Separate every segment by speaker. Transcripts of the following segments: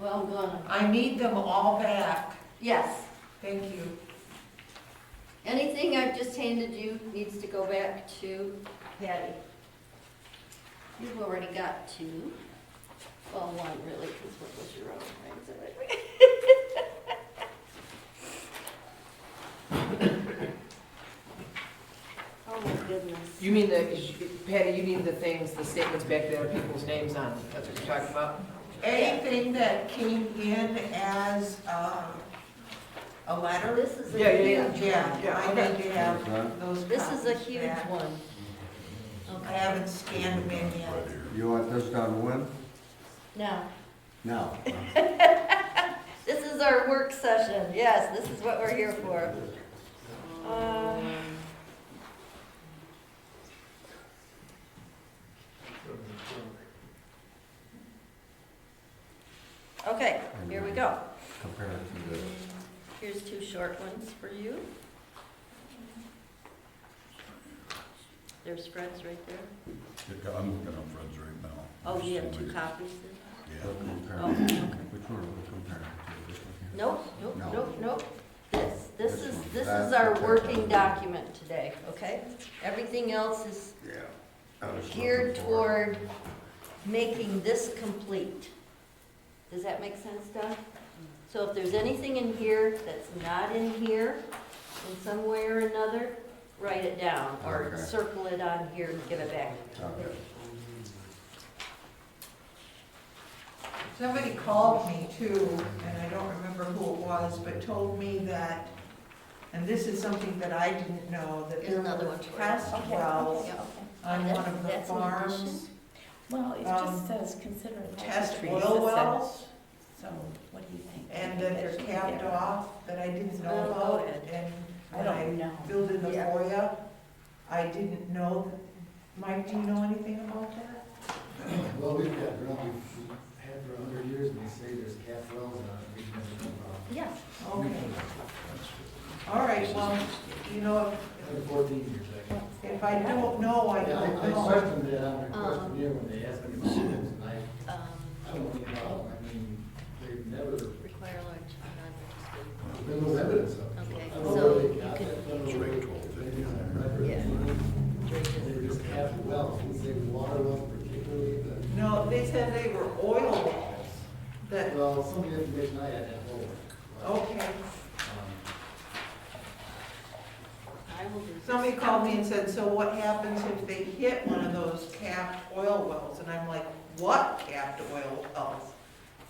Speaker 1: Well, I'm gonna,
Speaker 2: I need them all back.
Speaker 1: yes.
Speaker 2: Thank you.
Speaker 1: Anything I've just handed you needs to go back to Patty. You've already got two. Well, one really, because what was your own, right? Is that right? Oh, my goodness.
Speaker 3: You mean the, Patty, you mean the things, the statements back that are people's names on, that's what you're talking about?
Speaker 2: Anything that came in as uh, a letter?
Speaker 1: This is a
Speaker 3: Yeah, yeah,
Speaker 1: huge one.
Speaker 2: Yeah, I need to have those
Speaker 1: This is a
Speaker 2: copies
Speaker 1: huge
Speaker 2: back.
Speaker 1: one.
Speaker 2: I
Speaker 1: Okay,
Speaker 2: haven't scanned them in yet.
Speaker 4: You want this done when?
Speaker 1: now,
Speaker 4: Now.
Speaker 1: this is our work session. Yes, this is what we're here for. Uh, Okay, here we go.
Speaker 4: Compare it to this.
Speaker 1: Here's two short ones for you. There's Fred's right there.
Speaker 5: I'm looking on Fred's right now.
Speaker 1: Oh, you have two copies
Speaker 5: Yeah.
Speaker 4: We'll
Speaker 1: there?
Speaker 4: compare it.
Speaker 1: Oh, okay.
Speaker 4: Which one are we comparing it to? This one here?
Speaker 1: Nope, nope,
Speaker 4: No.
Speaker 1: nope, nope. This, this
Speaker 4: This
Speaker 1: is,
Speaker 4: one.
Speaker 1: this
Speaker 4: That-
Speaker 1: is our
Speaker 4: okay.
Speaker 1: working document today, okay? Everything else is
Speaker 4: Yeah. I was looking
Speaker 1: geared
Speaker 4: for it.
Speaker 1: toward making this complete. Does that make sense, Doug? So if there's anything in here that's not in here, in some way or another, write it down, or
Speaker 4: Okay.
Speaker 1: circle it on here and give it back.
Speaker 4: Okay.
Speaker 2: Somebody called me too, and I don't remember who it was, but told me that, and this is something that I didn't know, that
Speaker 1: Here's
Speaker 2: there
Speaker 1: another
Speaker 2: were
Speaker 1: one. for you.
Speaker 2: test
Speaker 6: Okay,
Speaker 2: wells
Speaker 6: okay.
Speaker 2: on
Speaker 1: That's-
Speaker 2: one of the
Speaker 1: that's an
Speaker 2: farms,
Speaker 1: addition.
Speaker 6: Well, it
Speaker 2: Um,
Speaker 6: just says consider. it
Speaker 2: test
Speaker 6: trees, it
Speaker 2: oil
Speaker 6: says.
Speaker 2: wells,
Speaker 6: So what do you think?
Speaker 2: and that they're capped
Speaker 6: Yeah.
Speaker 2: off, that I didn't know
Speaker 6: Well,
Speaker 2: about,
Speaker 6: loaded.
Speaker 2: and
Speaker 6: I
Speaker 2: when
Speaker 6: don't
Speaker 2: I
Speaker 6: know.
Speaker 2: filled in the
Speaker 1: Yeah.
Speaker 2: FOIA, I didn't know. Mike, do you know anything about that?
Speaker 7: Well, we've got, drought. we've had for a hundred years, and they say there's calf wells on it, we've never known about.
Speaker 1: Yeah,
Speaker 2: Okay, all right, well, you know,
Speaker 7: Hundred fourteen years, I guess.
Speaker 2: if- if I don't know, I
Speaker 7: Yeah,
Speaker 2: don't
Speaker 7: I, I
Speaker 2: know.
Speaker 7: questioned that on the questionnaire when they asked me about it, and I,
Speaker 1: um,
Speaker 7: I don't know, how. I mean, they've never,
Speaker 1: require large, non-participating.
Speaker 7: there was evidence of it.
Speaker 1: Okay,
Speaker 7: I don't
Speaker 1: so
Speaker 7: know where
Speaker 1: you
Speaker 7: they got
Speaker 1: could-
Speaker 7: that, I don't know where they got it on record.
Speaker 1: Yeah.
Speaker 7: They were just calf wells, didn't say water wells particularly, but,
Speaker 2: No, they said they were oil wells, that,
Speaker 7: well, some of the information I had, oh, um, that whole.
Speaker 2: okay.
Speaker 1: I will do.
Speaker 2: Somebody called me and said, so what happens if they hit one of those capped oil wells? And I'm like, what capped oil wells?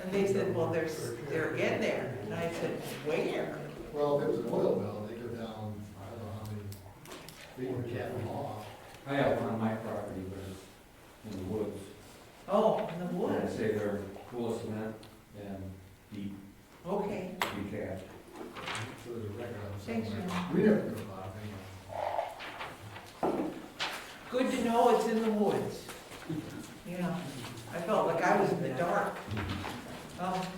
Speaker 2: And they said, well, there's, they're in there. And I said, where?
Speaker 7: Well, if it was an oil well, they go down, I don't know how many, they were capping off.
Speaker 8: I have one on my property, but it's in the woods.
Speaker 2: Oh, in the
Speaker 8: I'd
Speaker 2: woods,
Speaker 8: say they're full of cement and deep,
Speaker 2: okay.
Speaker 8: deep cast.
Speaker 7: So there's a record of
Speaker 2: Thanks,
Speaker 7: somewhere. We never knew about it anyway.
Speaker 2: Good to know it's in the woods. Yeah, I felt like I was in the dark. Oh,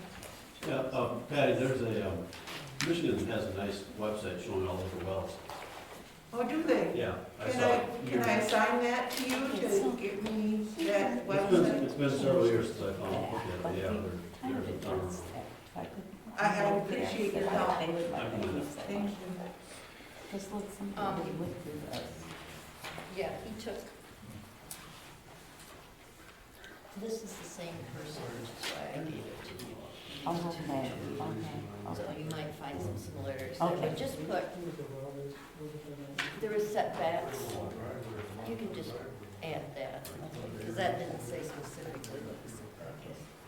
Speaker 9: Yeah, um, Patty, there's a, um, Michigan has a nice website showing all of the wells.
Speaker 2: oh, do they?
Speaker 9: Yeah.
Speaker 2: Can
Speaker 9: saw
Speaker 2: I,
Speaker 9: it
Speaker 2: can
Speaker 9: years-
Speaker 2: I assign that to you to get me that
Speaker 9: It's been,
Speaker 2: website?
Speaker 9: it's been several years since I found it, yeah, yeah,
Speaker 6: I
Speaker 9: there-
Speaker 6: would
Speaker 9: there's a ton
Speaker 6: address
Speaker 9: of them.
Speaker 6: that if I could.
Speaker 2: I- I appreciate your help.
Speaker 6: I would like to use that.
Speaker 2: Thank you.
Speaker 6: Just let
Speaker 1: Um,
Speaker 6: somebody with you.
Speaker 1: Yeah, he took. This is the same person, which is why I gave it to you.
Speaker 6: Oh, okay,
Speaker 1: So
Speaker 6: okay,
Speaker 1: you
Speaker 6: okay.
Speaker 1: might find some similarities there,
Speaker 6: Okay.
Speaker 1: but just put, there is setbacks. You can just add that, because that didn't say specifically what the setback is.